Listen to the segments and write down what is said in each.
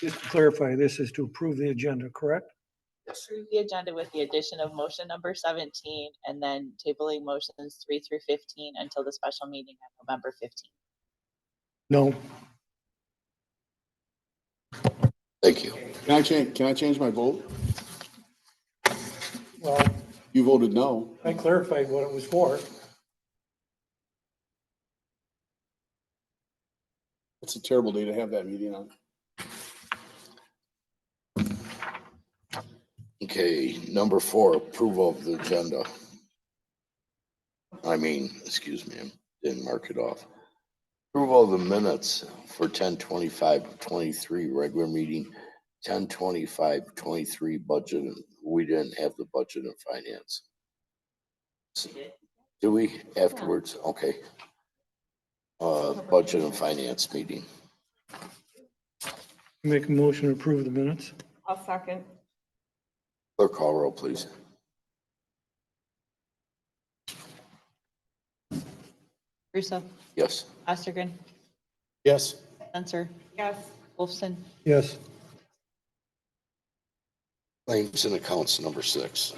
Just to clarify, this is to approve the agenda, correct? approve the agenda with the addition of motion number seventeen and then tabling motions three through fifteen until the special meeting on November fifteenth. No, Thank you. Can I change, can I change my vote? well, You voted no. I clarified what it was for. It's a terrible day to have that meeting on. Okay, number four, approval of the agenda. I mean, excuse me, I didn't mark it off. Approval of the minutes for 1025-23 regular meeting, 1025-23 budget. and- We didn't have the budget and finance. Do we afterwards? Okay. Uh, budget and finance meeting. Make a motion to approve the minutes. I'll second. Clerk call roll, please. Russo, Yes. Ostergren, Yes. Censor, Yes, Wolfson, Yes, Claims and accounts, number six.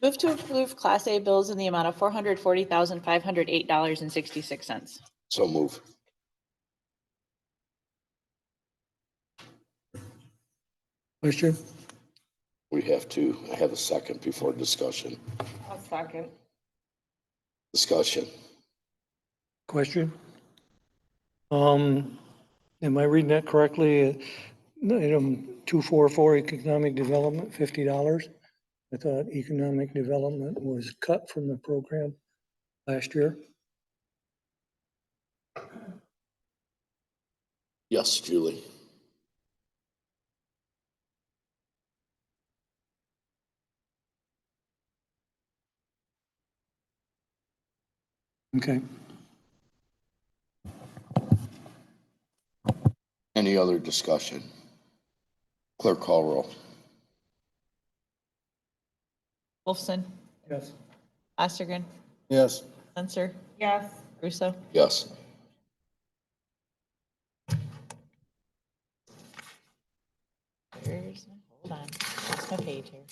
Move to approve Class A bills in the amount of four hundred forty thousand, five hundred eight dollars and sixty-six cents. So move. question? We have to have a second before discussion. I'll second. Discussion. Question? Um, am I reading that correctly? Item two four four, economic development, fifty dollars. I thought economic development was cut from the program last year. Yes, Julie. Okay, Any other discussion? Clerk call roll. Wolfson, yes. Ostergren, Yes. Censor, Yes, Russo, Yes. Here's my- Hold on, that's my page here.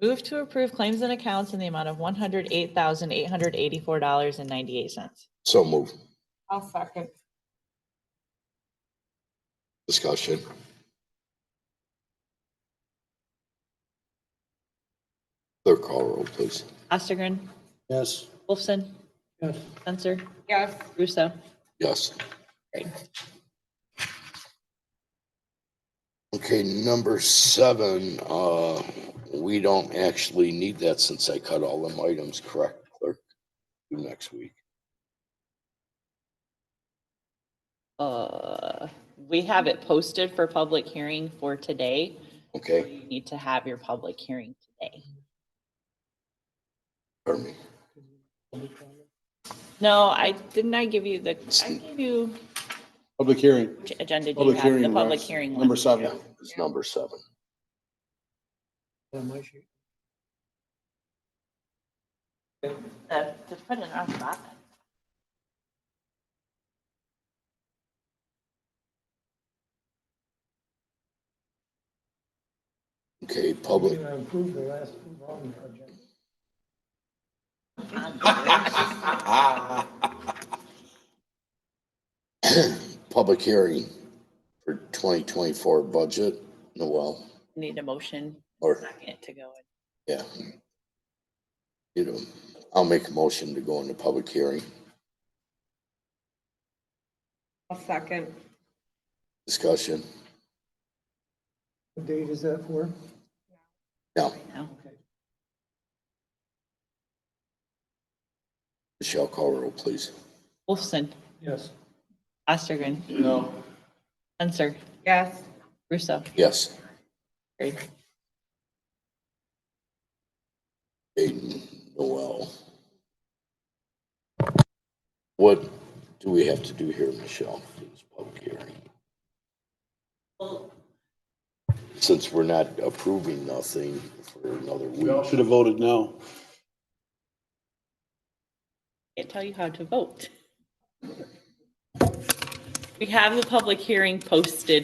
Move to approve claims and accounts in the amount of one hundred eight thousand eight hundred eighty-four dollars and ninety-eight cents. So move. I'll second. Discussion. Clerk call roll, please. Ostergren, Yes. Wolfson, Yes. Censor, Yes, Russo. Yes. Great. Okay, number seven, uh, we don't actually need that since I cut all them items, correct, clerk? Do next week. Uh, we have it posted for public hearing for today. Okay, You need to have your public hearing today. pardon me. No, I, didn't I give you the, I gave you, Public hearing. which agenda do you Public have? hearing. The public Russ. hearing Number one. seven. It's number seven. On my sheet. Uh, To put it on that. Okay, public, Approved the last one project. public hearing for twenty twenty-four budget, Noel, Need a motion or, second to go. in. yeah. You know, I'll make a motion to go into public hearing. I'll second. Discussion. What date is that for? Now, No. Michelle call roll, please. Wolfson, Yes. Ostergren, No. Censor, Yes, Russo. Yes. Great. Aiden, Noel. What do we have to do here, Michelle, for this public hearing? Since we're not approving nothing for another We all week, should have voted no. Can't tell you how to vote. We have the public hearing posted